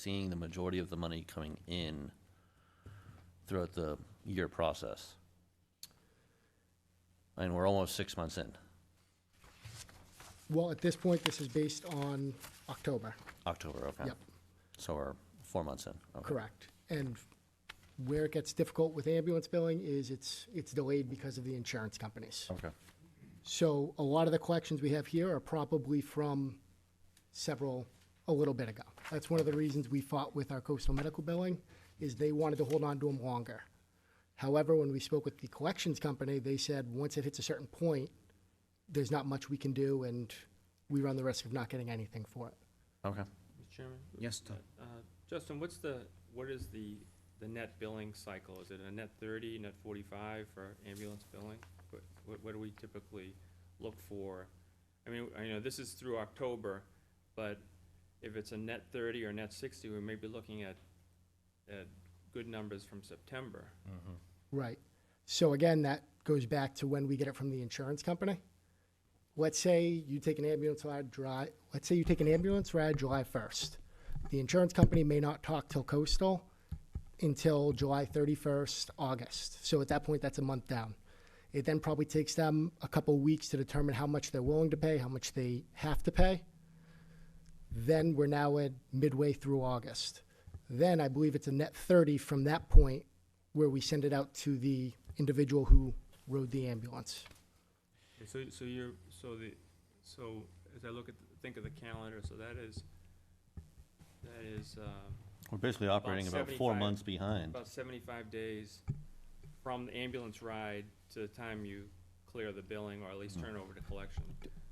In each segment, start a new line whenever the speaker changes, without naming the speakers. seeing the majority of the money coming in throughout the year process. And we're almost six months in,
Well, at this point, this is based on October,
October, okay?
Yep.
So we're four months in. okay.
correct. And where it gets difficult with ambulance billing is it's, it's delayed because of the insurance companies.
Okay,
So a lot of the collections we have here are probably from several, a little bit ago. That's one of the reasons we fought with our coastal medical billing, is they wanted to hold on to them longer. However, when we spoke with the collections company, they said, once it hits a certain point, there's not much we can do, and we run the risk of not getting anything for it.
okay.
Mr. Chairman?
Yes, Tom.
Uh, Justin, what's the, what is the, the net billing cycle? Is it a net thirty, net forty-five for ambulance billing? What- What, what do we typically look for? I mean, I know this is through October, but if it's a net thirty or net sixty, we may be looking at, at good numbers from September.
Right. So again, that goes back to when we get it from the insurance company. Let's say you take an ambulance ride dry, let's say you take an ambulance ride July first. The insurance company may not talk till coastal until July thirty-first, August. So at that point, that's a month down. It then probably takes them a couple weeks to determine how much they're willing to pay, how much they have to pay. Then we're now at midway through August. Then I believe it's a net 30 from that point where we send it out to the individual who rode the ambulance.
Okay, So, so you're, so the, so as I look at, think of the calendar, so that is, that is, um,
We're basically operating about four
75
months behind.
About seventy-five days from the ambulance ride to the time you clear the billing or at
Mm.
least turn over to collection.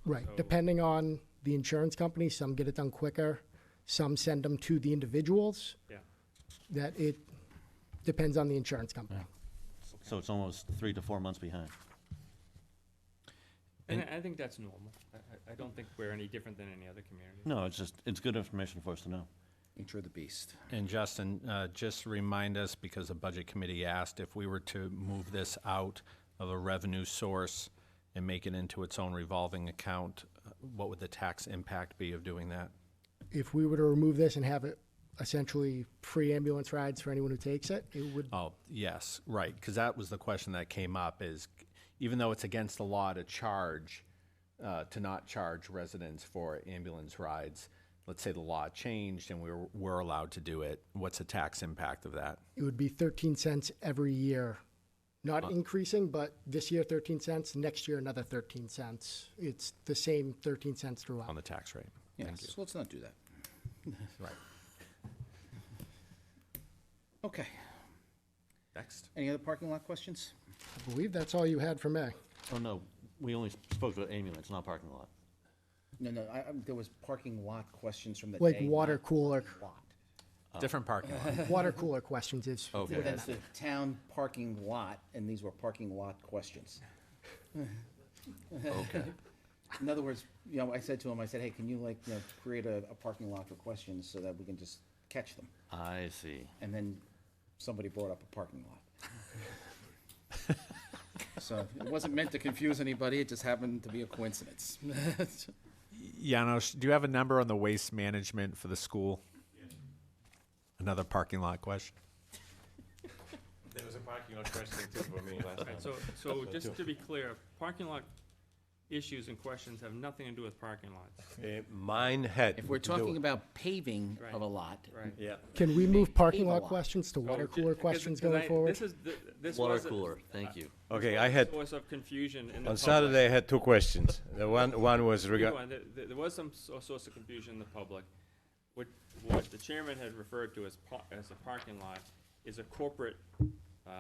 Right.
So-
Depending on the insurance company, some get it done quicker, some send them to the individuals.
Yeah.
That it depends on the insurance company.
So it's almost three to four months behind.
And I I think that's normal. I, I, I don't think we're any different than any other community.
No, it's just, it's good information for us to know.
Nature of the beast.
And Justin, uh, just remind us, because the Budget Committee asked, if we were to move this out of a revenue source and make it into its own revolving account, uh, what would the tax impact be of doing that?
If we were to remove this and have it essentially free ambulance rides for anyone who takes it, it would,
Oh, yes, right, because that was the question that came up, is even though it's against the law to charge, uh, to not charge residents for ambulance rides, let's say the law changed and we were, were allowed to do it, what's the tax impact of that?
it would be 13 cents every year. Not increasing, but this year 13 cents, next year another 13 cents. It's the same 13 cents
on
throughout.
the tax rate.
Yes, so let's not do that.
Right.
Okay.
Next.
Any other parking lot questions?
I believe that's all you had for me.
Oh, no, we only spoke about ambulance, not parking lot.
No, no, I, I'm- there was parking lot questions from the
Like
day,
water
not
cooler.
Lot.
Different parking lot.
Water cooler questions is,
Oh.
Okay.
That's the town parking lot, and these were parking lot questions.
Okay.
In other words, you know, I said to him, I said, hey, can you like, you know, create a, a parking lot for questions so that we can just catch them?
I see.
And then somebody brought up a parking lot. So it wasn't meant to confuse anybody, it just happened to be a coincidence.
Janos, do you have a number on the waste management for the school? Another parking lot question.
There was a parking lot question too for me last time.
Right, so, so just to be clear, parking lot issues and questions have nothing to do with parking lots.
Uh, Mine had.
If we're
to do
talking
it.
about paving of a lot,
Right.
Yeah,
can we move parking
Leave a
lot
lot.
questions to water
So, ju-
cooler
Oh, because-
questions
because
going
I-
forward?
This is, the- this
Water
was. a-
cooler, thank you.
okay, I had,
Source of confusion in the
on
public.
Saturday, I had two questions. The one, one was
Keep
regard,
going. There- There, there was some so- source of confusion in the public. What, what the chairman had referred to as par- as a parking lot is a corporate uh,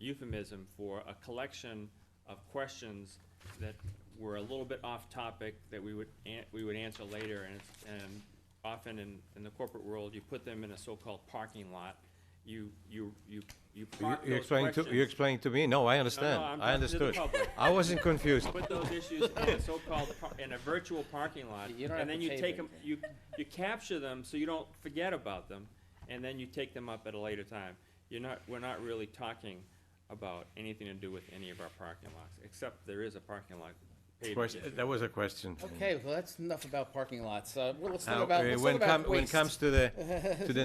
euphemism for a collection of questions that were a little bit off topic that we would an- we would answer later, and it's- and often in, in the corporate world, you put them in a so-called parking lot. You you you you
you
park
you
those
explained to,
questions.
you explained to me? No, I understand.
I'm
I
talking to the
understood.
public.
I wasn't confused.
put those issues in a so-called, par- in a virtual parking lot,
You don't have
and then
to
you
pay
take
them.
them, you, you capture them so you don't forget about them, and then you take them up at a later time. You're not, we're not really talking about anything to do with any of our parking lots, except there is a parking lot paved.
Question- That was a question.
Okay, well, that's enough about parking lots. Uh, well, let's
Now,
talk about,
uh,
let's
when
talk about
come- When it
waste.
comes to the, to the